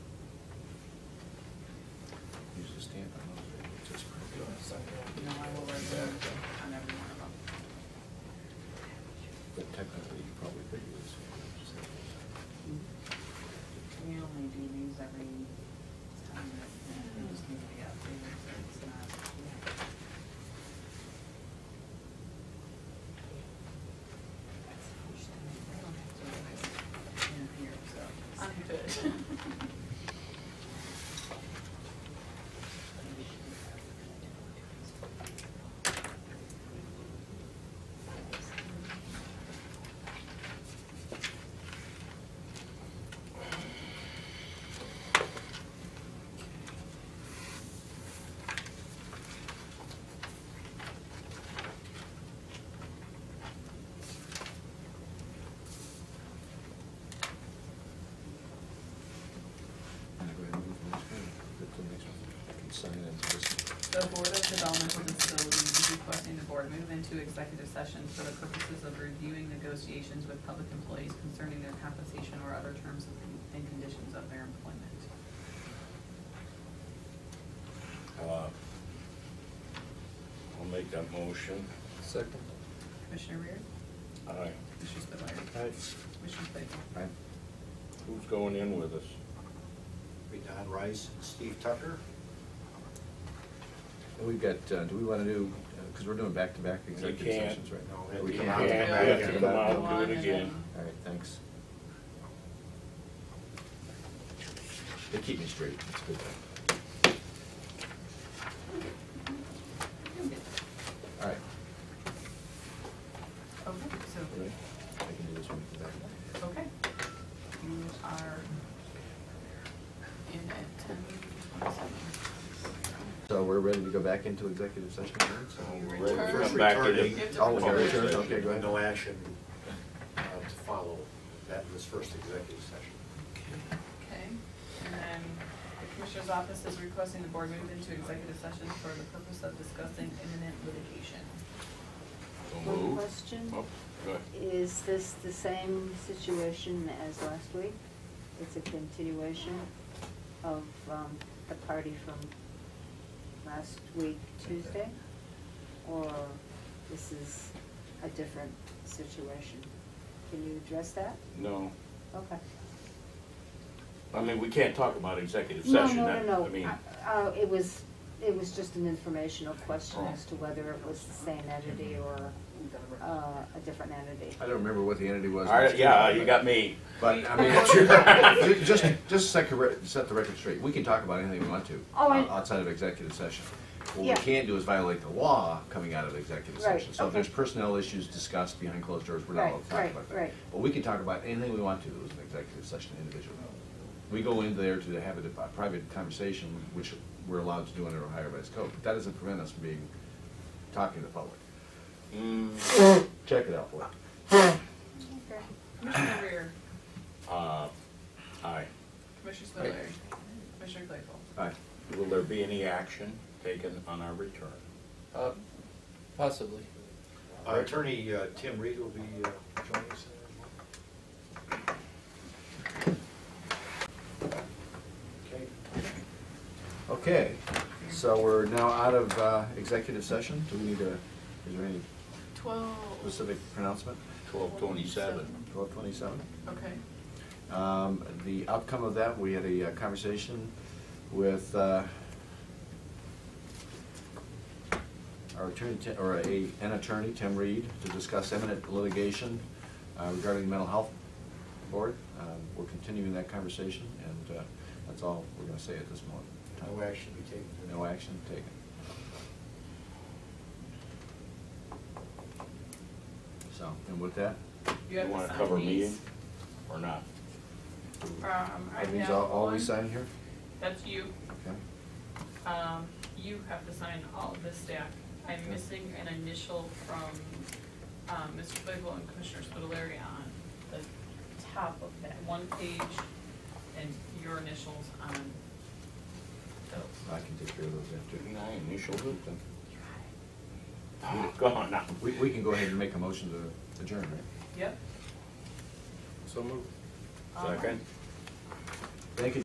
stamp on those, they would just print it on the side. No, I will write that on every one of them. But technically, you probably could use. We only do these every time that they just need to be updated, so it's not. I don't have to realize it in here, so I'm good. And I go ahead and move on to the next one. I can sign it and just. The Board of Developmental Disabilities is requesting the board move into executive session for the purposes of reviewing negotiations with public employees concerning their compensation or other terms and conditions of their employment. Uh, I'll make that motion. Second. Commissioner Reer? Aye. Commissioner Spudler? Commissioner Claypool? Aye. Who's going in with us? Be Don Rice, Steve Tucker. And we've got, uh, do we wanna do, uh, cause we're doing back-to-back executive can't. sessions right now. No, We we come can't. out. Yeah, We have to come out Go on and and do it again. then- All right, thanks. They keep me straight, that's good. All right. Okay, so, Ready? I can do this one for that. okay. You are in at ten twenty-seven. So we're ready to go back into executive session, right? So So- You we're return- ready- first Come back to the- returning. You have to Oh, we return. gotta return, okay, go ahead. No action uh, to follow that in this first executive session. Okay, and then the Commissioner's Office is requesting the board move into executive session for the purpose of discussing imminent litigation. Don't One move. question, Oh, go ahead. is this the same situation as last week? It's a continuation of um, the party from last week, Tuesday? Or this is a different situation? Can you address that? No, Okay. I mean, we can't talk about executive No, session. no, that- no, I mean, no. Uh, uh, It was, it was just an informational question Oh. as to whether it was the same entity or uh, a different entity. I don't remember what the entity was. all right, yeah, you got me. But, I mean, just, just set the re- set the record straight, we can talk about anything we want to, Oh, I- o- outside of executive session. What we Yeah. can't do is violate the law coming out of executive Right, session. So if okay. there's personnel issues discussed behind closed doors, we're not allowed to Right, talk right, about that. right. But we can talk about anything we want to, as an executive session individually. We go in there to have a di- a private conversation, which we're allowed to do under Ohio Revised Code, but that doesn't prevent us from being, talking to the public. Mm, Check it out, boy. Okay. Commissioner Rear, uh, Aye. Commissioner Spudler, Commissioner Claypool. Aye. Will there be any action taken on our return? Uh, Possibly. Uh, Attorney uh, Tim Reed will be uh, joining us. Okay. Okay, so we're now out of uh, executive session. Do we need a, is there any Twelve. specific pronouncement? Twelve twenty-seven. Twelve twenty-seven. Okay. Um, the outcome of that, we had a uh, conversation with, uh, our attorney, Ti- or a, an attorney, Tim Reed, to discuss imminent litigation uh, regarding the mental health board. Uh, we're continuing that conversation, and, uh, that's all we're gonna say at this moment. No action to be taken. No action taken. So, and with that, You have You to wanna sign cover these. meeting or not? Um, I are these have all, all we one. sign here? That's you. Okay. Um, you have to sign all of this stack. I'm missing an initial from, um, Mr. Spiegel and Commissioner Spitaleri on the top of that one page and your initials on those. I can take care of those after. Didn't I initial it then? Oh, Go on now. We, we can go ahead and make a motion to adjourn, right? Yep. So moved. All right. Second?